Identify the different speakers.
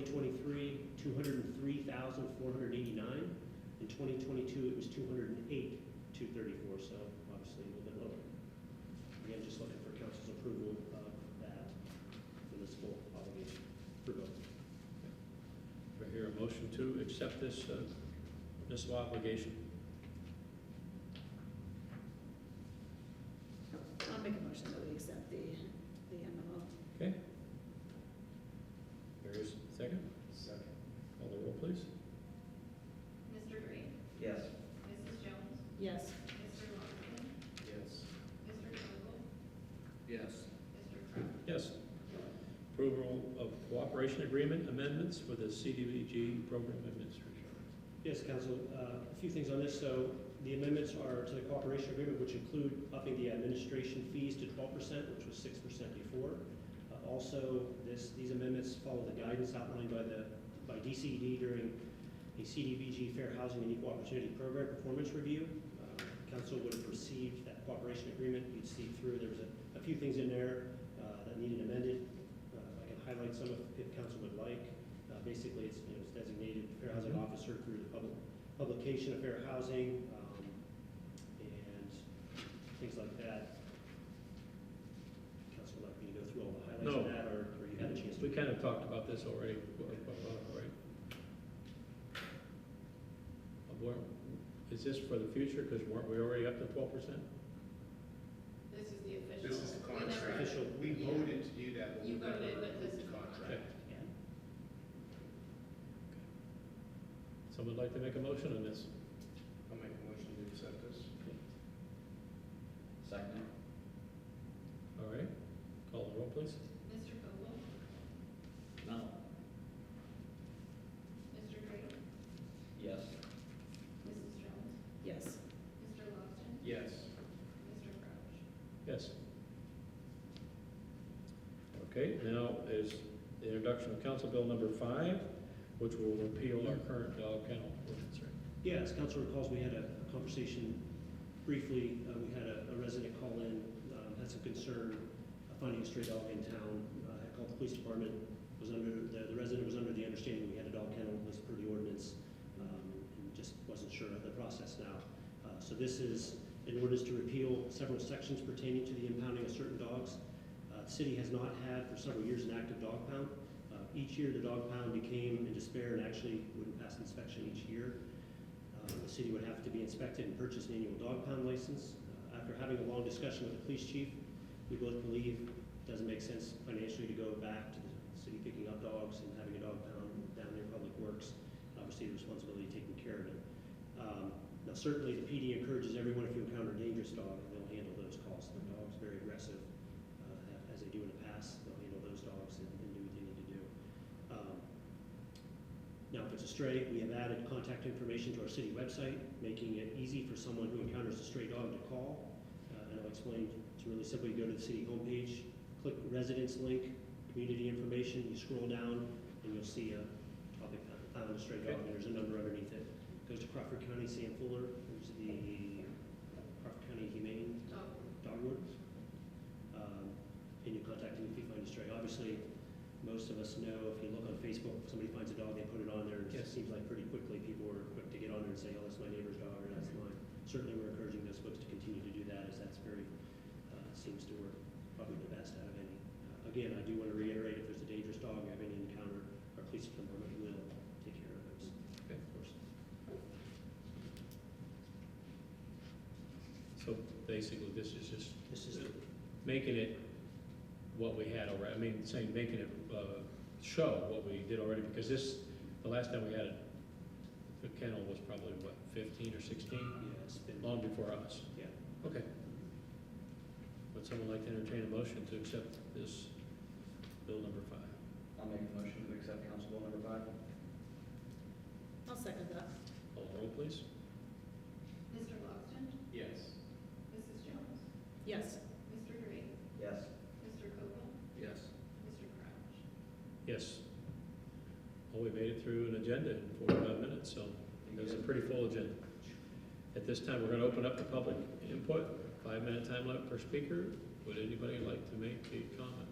Speaker 1: 2023, 203,489. In 2022, it was 208,234, so obviously a little bit lower. Again, just looking for council's approval of that municipal obligation for both.
Speaker 2: Do I hear a motion to accept this uh, municipal obligation?
Speaker 3: I'll make a motion that we accept the, the MMO.
Speaker 2: Okay? There is a second.
Speaker 4: Second.
Speaker 2: Call the roll, please.
Speaker 5: Mr. Green,
Speaker 4: Yes.
Speaker 5: Mrs. Jones,
Speaker 3: Yes.
Speaker 5: Mr. Lockton,
Speaker 4: Yes.
Speaker 5: Mr. Vogel,
Speaker 4: Yes.
Speaker 5: Mr. Crowe.
Speaker 2: Yes. Approval of cooperation agreement amendments for the CDBG program administration.
Speaker 1: Yes, council, uh, a few things on this. So the amendments are to the cooperation agreement, which include upping the administration fees to twelve percent, which was six percent before. Uh, Also, this, these amendments follow the guidance outlined by the, by DCD during the CDBG Fair Housing and Equal Opportunity Program Performance Review. Uh, Council would have received that cooperation agreement. You'd see through, there was a, a few things in there uh, that needed amended. Uh, I can highlight some if- if council would like. Uh, Basically, it's, you know, it's designated fair housing officer through the public, publication of fair housing, um, and things like that. Council would like me to go through all the highlights of
Speaker 2: No.
Speaker 1: that, or or you had a chance to?
Speaker 2: We kind of talked about this already, right? Uh, weren't- Is this for the future, because weren't we already up to twelve percent?
Speaker 5: This is the official.
Speaker 4: This is the
Speaker 5: We never-
Speaker 4: contract.
Speaker 1: Official,
Speaker 4: We voted to do that, but we
Speaker 5: You
Speaker 4: never
Speaker 5: voted, but this is-
Speaker 4: approved the contract.
Speaker 1: yeah.
Speaker 2: Someone like to make a motion on this?
Speaker 4: I'll make a motion to accept this.
Speaker 6: Second?
Speaker 2: All right, call the roll, please.
Speaker 5: Mr. Vogel,
Speaker 6: No.
Speaker 5: Mr. Green,
Speaker 6: Yes.
Speaker 5: Mrs. Jones,
Speaker 3: Yes.
Speaker 5: Mr. Lockton,
Speaker 4: Yes.
Speaker 5: Mr. Crowe.
Speaker 2: Yes. Okay, now is the introduction of Council Bill number five, which will repeal our current dog kennel ordinance, right?
Speaker 1: Yeah, as council recalls, we had a a conversation briefly, uh, we had a a resident call in, um, had some concern uh, finding a stray dog in town, Uh, had called the police department, was under, the the resident was under the understanding we had a dog kennel, was per the ordinance, um, and just wasn't sure of the process now. Uh, So this is in ordinance to repeal several sections pertaining to the impounding of certain dogs. Uh, The city has not had for several years an active dog pound. Uh, Each year, the dog pound became in despair and actually wouldn't pass inspection each year. Uh, The city would have to be inspected and purchase an annual dog pound license. Uh, After having a long discussion with the police chief, we both believe it doesn't make sense financially to go back to the city picking up dogs and having a dog pound down near Public Works. Obviously, the responsibility of taking care of it. Um, Now, certainly, the PD encourages everyone, if you encounter a dangerous dog, they'll handle those calls. The dog's very aggressive, uh, as they do in the past, they'll handle those dogs and and do what they need to do. Um, now, if it's a stray, we have added contact information to our city website, making it easy for someone who encounters a stray dog to call. Uh, and I'll explain, it's really simple, you go to the city homepage, click residence link, community information, you scroll down, and you'll see a topic, uh, found a stray dog, and there's a number underneath it. Goes to Crawford County, Sam Fuller, who's the Crawford County Humane
Speaker 5: Vogel,
Speaker 1: dog wardens, um, and you contact them if you find a stray. Obviously, most of us know, if you look on Facebook, somebody finds a dog, they put it on there, and it
Speaker 2: Yes.
Speaker 1: seems like pretty quickly, people are quick to get on there and say, oh, that's my neighbor's dog, or that's mine. Certainly, we're encouraging those folks to continue to do that, as that's very, uh, seems to work probably the best out of any. Uh, Again, I do want to reiterate, if there's a dangerous dog, you have any encounter, our police department will take care of those,
Speaker 2: Okay.
Speaker 1: of course.
Speaker 2: So basically, this is just
Speaker 1: This is,
Speaker 2: making it what we had already, I mean, saying, making it, uh, show what we did already, because this, the last time we had it, the kennel was probably, what, fifteen or sixteen,
Speaker 1: yeah, it's been,
Speaker 2: long before us.
Speaker 1: yeah.
Speaker 2: Okay. Would someone like to entertain a motion to accept this bill number five?
Speaker 6: I'll make a motion to accept Council Bill number five.
Speaker 3: I'll second that.
Speaker 2: Call the roll, please.
Speaker 5: Mr. Lockton,
Speaker 4: Yes.
Speaker 5: Mrs. Jones,
Speaker 3: Yes.
Speaker 5: Mr. Green,
Speaker 6: Yes.
Speaker 5: Mr. Vogel,
Speaker 4: Yes.
Speaker 5: Mr. Crowe.
Speaker 2: Yes. Well, we made it through an agenda in forty-five minutes, so it was a pretty full agenda. At this time, we're gonna open up the public input, five-minute time limit per speaker. Would anybody like to make a comment?